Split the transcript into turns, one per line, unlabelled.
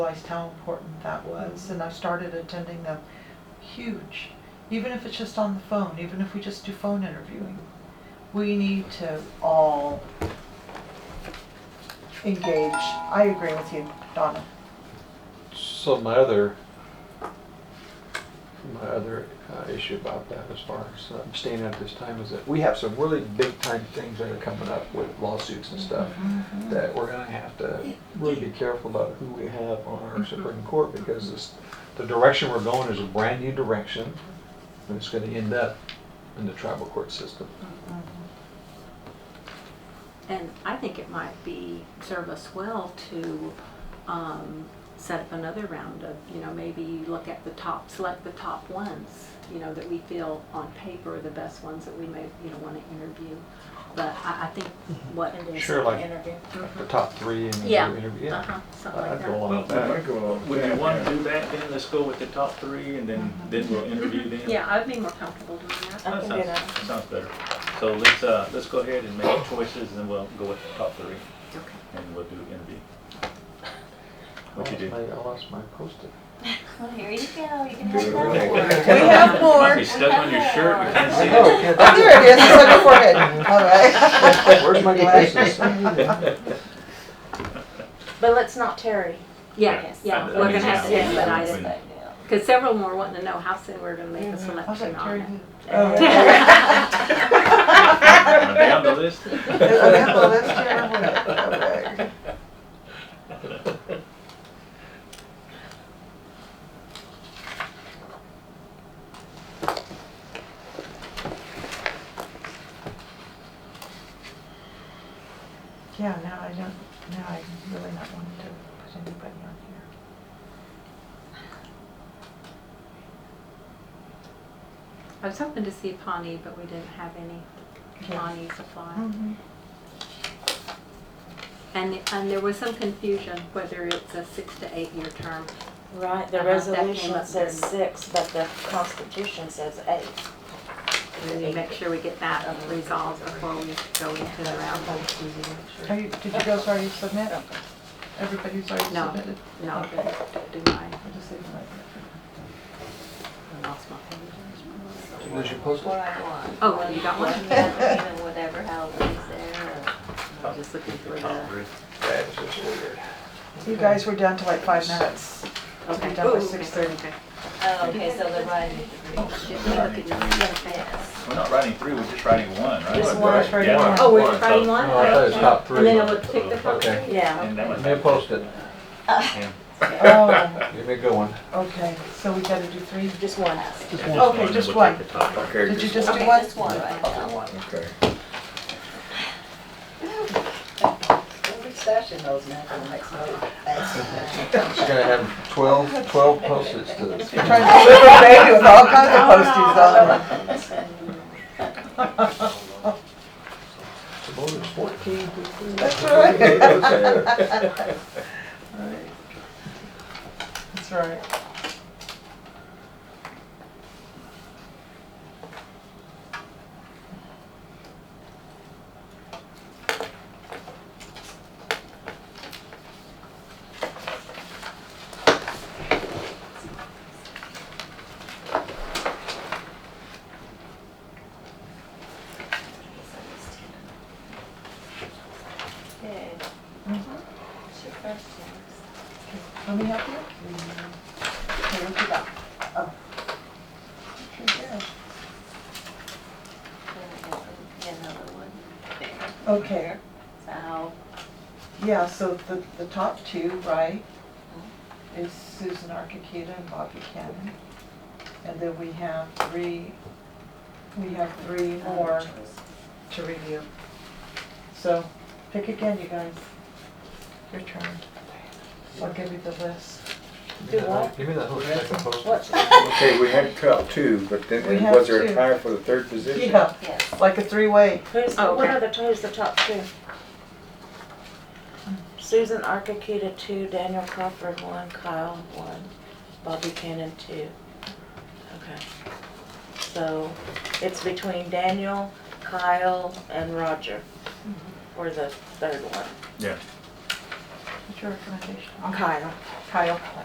realized how important that was, and I started attending them. Huge. Even if it's just on the phone, even if we just do phone interviewing, we need to all engage. I agree with you, Donna.
So my other, my other uh, issue about that as far as abstaining at this time is that we have some really big time things that are coming up with lawsuits and stuff
Mm-hmm.
that we're gonna have to really be careful about who we have on our Supreme Court because this, the direction we're going is a brand new direction and it's gonna end up in the tribal court system.
And I think it might be, serve us well to um, set up another round of, you know, maybe look at the top, select the top ones, you know, that we feel on paper are the best ones that we may, you know, want to interview. But I, I think what.
and do
Sure,
sure,
like-
interview.
The top three and the
Mm-hmm. Yeah.
interview,
Uh-huh,
yeah.
Something like
I'd go
that.
along with
Would
that.
you- would you want to do that then? Let's go with the top three and then, then we'll interview them?
Yeah, I'd be more comfortable doing that.
I
That
can
sounds,
do that.
that sounds better. So let's, uh, let's go ahead and make choices and then we'll go with the top three
Okay.
and we'll do interview. What you do?
I lost my post-it.
Well, here you go. You can
Good.
have that
We
one.
have
Might
more.
be stuck on your shirt, we can't see
Oh,
it.
yeah,
Oh,
that's it.
there it is. It's on your forehead. All right.
Where's my glasses?
But let's not tarry.
Yeah,
Yes.
yeah,
That-
we're
that
gonna
means
have to
now.
get
When-
it. Because several more wanting to know how soon we're gonna make a
I was
selection
like,
on
Terry,
it.
who- oh.
Yeah.
Am I Down the list?
Oh, yeah, well, that's Terry Wood. Okay. Yeah, now I don't, now I really not wanting to put anybody on here.
I was hoping to see Pawnee, but we didn't have any
Yeah.
Pawnee supply.
Mhm.
And, and there was some confusion whether it's a six to eight year term.
Right,
Uh-huh, that
the
came
resolution
up
says
during-
six, but the constitution says eight.
We need to make sure we get that resolved before we go into the round.
Are you, did you guys already submit? Everybody's already
No.
submitted?
No, I
Okay.
didn't do mine.
I just leave it like that.
I lost my page.
Where's your post-it?
what I want.
Oh, you got one?
Yeah, Even whatever, how it is there.
I'm just looking for
Top
the.
three.
That is just weird.
You guys were down to like five minutes.
Okay.
Be done by
Ooh, okay,
6:30.
okay.
Oh, okay, so the writing.
Just look at your-
Yes.
We're not writing three, we're just writing one, right?
Just one. Just writing
Yeah.
one.
Oh, we're
so-
trying one?
No, I thought it was top three.
And then I would pick the top
Okay.
three?
Yeah.
And that was-
Give me a post-it.
Yeah.
Oh,
Give me a good one.
okay, so we gotta do three.
Just one.
Just
Okay,
one, and
just
we'll
one.
take the top
Okay,
Did you
just-
just do
Okay,
one?
just one right now.
Okay.
Every session knows now for the next one.
She's gonna have 12, 12 post-its to this.
Trying to get away with all kinds of posties on there.
Supposed it's 14.
That's right.
Okay.
That's right.
Okay. What's your first
Let me help you. Okay, what you got? Oh. Sure do.
one? Then another one there.
Oh. Okay,
So how,
yeah, so the, the top two, right, is Susan Archiketa and Bob Buchanan. And then we have three, we have three more to review. So, pick again, you guys. Your turn. I'll give you the list.
Give me that whole- Give me that whole second
What?
post-it.
Okay, we had top two, but then,
We
and
have
was there
two.
a tie for the third position?
Yeah,
yes.
like a three-way.
Who's,
Oh,
what
okay.
are the, who's the top two? Susan Archikuda, two, Daniel Crawford, one, Kyle, one, Bobby Cannon, two. Okay. So it's between Daniel, Kyle, and Roger for the third one.
Yeah.
What's your recommendation?
Kyle.
Kyle.